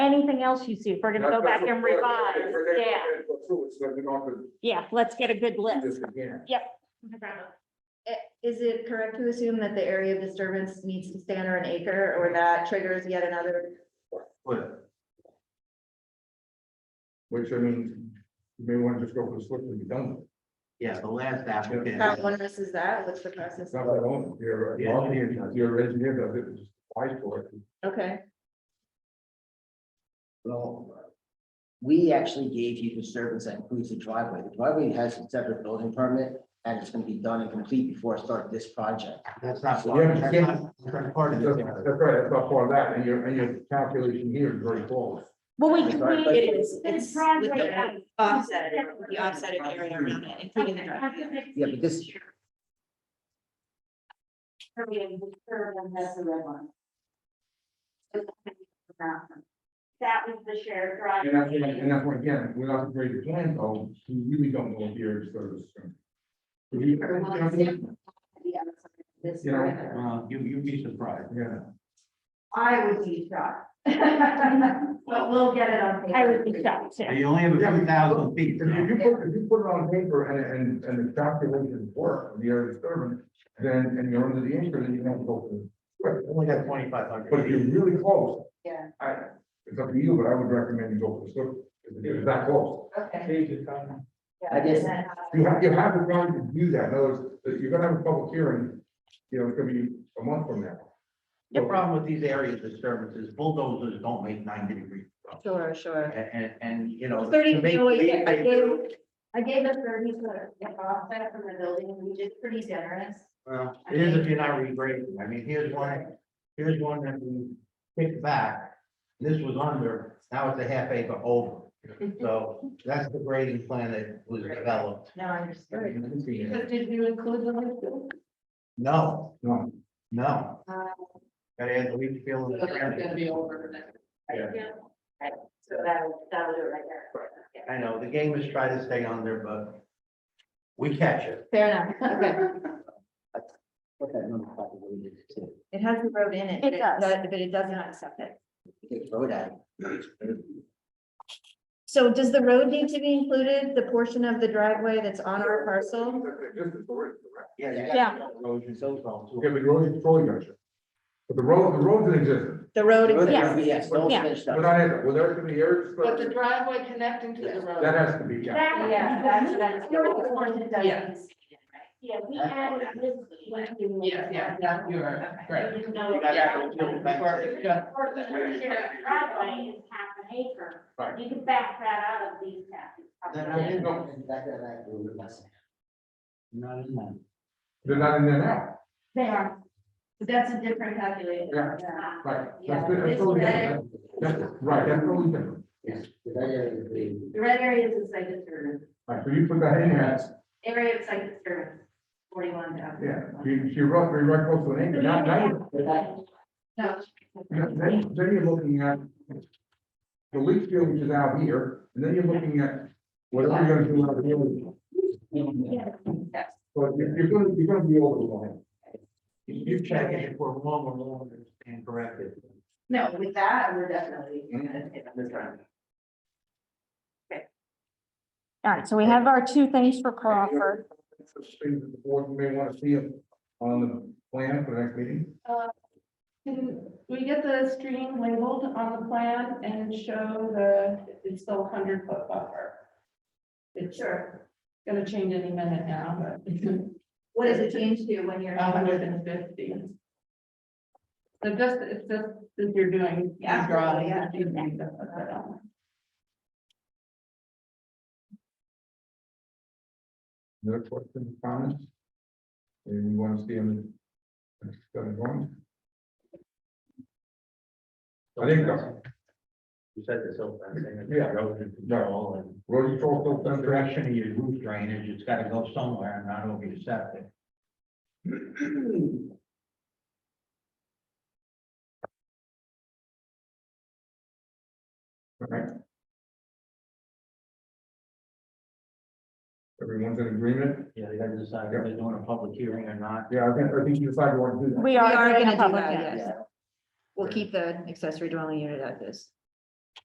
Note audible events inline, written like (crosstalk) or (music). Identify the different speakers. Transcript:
Speaker 1: anything else you see, if we're gonna go back and revise, yeah, yeah, let's get a good list.
Speaker 2: I- Is it correct to assume that the area of disturbance needs to stay under an acre or that triggers yet another?
Speaker 3: Which I mean, you may want to just go for the slip and be done with it.
Speaker 4: Yeah, the last applicant.
Speaker 2: How onerous is that? What's the process?
Speaker 3: It's not my own, your,
Speaker 4: The engineer does.
Speaker 3: your engineer does it, just apply for it.
Speaker 2: Okay,
Speaker 4: Well, we actually gave you disturbance that includes the driveway. The driveway has a separate building permit and it's gonna be done and complete before I start this project. That's not.
Speaker 3: Yeah, that's not-
Speaker 4: part
Speaker 3: That's that's right, that's not part of that, and your, and your calculation here is very flawless.
Speaker 1: Well, we.
Speaker 4: Sorry,
Speaker 1: we-
Speaker 5: It is,
Speaker 1: This
Speaker 5: it's
Speaker 1: project-
Speaker 5: with the offset, the offset of area around it, including the driveway.
Speaker 4: Yeah, but this-
Speaker 1: Purple and purple and that's the red one. That was the shared drive.
Speaker 3: And that's, and that's why, again, without the greater plan, though, you really don't know if your service. You know,
Speaker 1: The other side of This.
Speaker 3: You know,
Speaker 1: river.
Speaker 6: Uh,
Speaker 4: you, you'd be surprised.
Speaker 3: yeah.
Speaker 1: I would be shocked. (laughs) But we'll get it on paper. I would be shocked, yeah.
Speaker 4: You only have
Speaker 3: a few thousand If
Speaker 4: feet.
Speaker 3: you- you put, if you put it on paper and, and, and the calculations work, the area disturbance, then, and you're under the acre, then you don't go to.
Speaker 4: Only got twenty-five
Speaker 3: But if you're really close.
Speaker 2: Yeah.
Speaker 3: I, it's up to you, but I would recommend you go for the slip, if it's that close.
Speaker 2: okay.
Speaker 4: I guess-
Speaker 3: You have, you have the right to do that, in other words, that you're gonna have a public hearing, you know, it's gonna be a month from now.
Speaker 6: The problem with these area disturbances, bulldozers don't make ninety degrees.
Speaker 2: Sure, sure.
Speaker 6: And, and, and, you know.
Speaker 2: Thirty,
Speaker 6: to make-
Speaker 2: no,
Speaker 6: make-
Speaker 2: I gave, I gave a thirty foot offset from the building, which is pretty generous.
Speaker 6: Well, it is if you're not regrading. I mean, here's one, here's one that we picked back. This was under, now it's a half acre over. So that's the grading plan that was developed.
Speaker 2: No, I understood.
Speaker 1: Did you include the link?
Speaker 6: No,
Speaker 3: No,
Speaker 6: no.
Speaker 2: Uh,
Speaker 6: Gotta add the leach field. and the drainage.
Speaker 5: be over.
Speaker 3: Yeah.
Speaker 1: So that, that'll do it right there.
Speaker 6: I know, the game is try to stay under, but we catch it.
Speaker 2: Fair enough, okay.
Speaker 4: What that number probably is too.
Speaker 2: It has the road in it.
Speaker 1: It
Speaker 2: but
Speaker 1: does.
Speaker 2: that- But it does not accept it.
Speaker 4: Take the road out.
Speaker 2: So does the road need to be included, the portion of the driveway that's on our parcel?
Speaker 3: Just the story, correct?
Speaker 6: Yeah. you
Speaker 1: Yeah.
Speaker 6: got Erosion, those all too.
Speaker 3: Okay, but you're only controlling measure. But the road, the road's in existence,
Speaker 2: The road
Speaker 4: Road
Speaker 2: exists.
Speaker 4: there, Yes, no
Speaker 1: Yeah.
Speaker 4: finished
Speaker 3: we're
Speaker 4: up.
Speaker 3: not in it, well, there's gonna be area disturbance,
Speaker 5: driveway connecting to the
Speaker 3: that has to be, yeah.
Speaker 1: Yeah, that's, that's.
Speaker 5: Yeah.
Speaker 1: Yeah, we added this. link in the-
Speaker 5: Yeah, yeah, yeah, you are, right.
Speaker 1: You know,
Speaker 5: You gotta go to the back.
Speaker 1: Of course, the shared driveway is half an acre.
Speaker 3: Right.
Speaker 1: You can back that out of these taxes.
Speaker 4: Then I didn't
Speaker 3: No.
Speaker 4: know. Back to that road, that's- Not in that.
Speaker 3: They're not in there now,
Speaker 1: They are.
Speaker 2: That's a different calculation.
Speaker 3: yeah, right.
Speaker 1: Yeah,
Speaker 3: That's, that's
Speaker 1: this
Speaker 3: totally
Speaker 1: red,
Speaker 3: different. That's- right, that's totally different.
Speaker 4: Yes. The red area is the-
Speaker 1: the red area is a site disturbance,
Speaker 3: Right, so you put that in there,
Speaker 1: area of site disturbance, forty-one thousand.
Speaker 3: yeah, she, she wrote, we wrote close to an acre, now, now, you- Yeah, Then, then you're looking at the leach field, which is out here, and then you're looking at what are you gonna do out here? But you're, you're gonna, you're gonna be over the line.
Speaker 6: You check it, if we're wrong, we're wrong, and correct it.
Speaker 2: No, with that, we're definitely.
Speaker 1: All right, so we have our two things for Crawford.
Speaker 3: That's the thing that the board may wanna see on the plan for the next meeting.
Speaker 5: Can we get the stream labeled on the plan and show the, it's still hundred foot buffer? It's sure, gonna change any minute now, but
Speaker 2: What does it change to Uh, when you're?
Speaker 5: hundred and fifty. So just, it's just, if you're doing.
Speaker 2: Yeah,
Speaker 5: Drawing.
Speaker 2: yeah.
Speaker 5: you need to put that on.
Speaker 3: No questions, comments? And we wanna see them. That's gonna go on. I think so.
Speaker 6: You said this whole thing.
Speaker 3: Yeah.
Speaker 6: Erosion control and.
Speaker 3: Road control,
Speaker 6: the
Speaker 3: filter
Speaker 6: direction of your roof drainage, it's gotta go somewhere and not over your septic.
Speaker 3: Okay. Everyone's in agreement?
Speaker 6: Yeah, they gotta decide if they're doing a public hearing or not.
Speaker 3: Yeah, I think, I think you decide you want to do that.
Speaker 1: We
Speaker 2: We
Speaker 1: are
Speaker 2: are
Speaker 1: doing a
Speaker 2: gonna do
Speaker 1: public
Speaker 2: that,
Speaker 1: hearing.
Speaker 2: yes. We'll keep the accessory dwelling unit as is.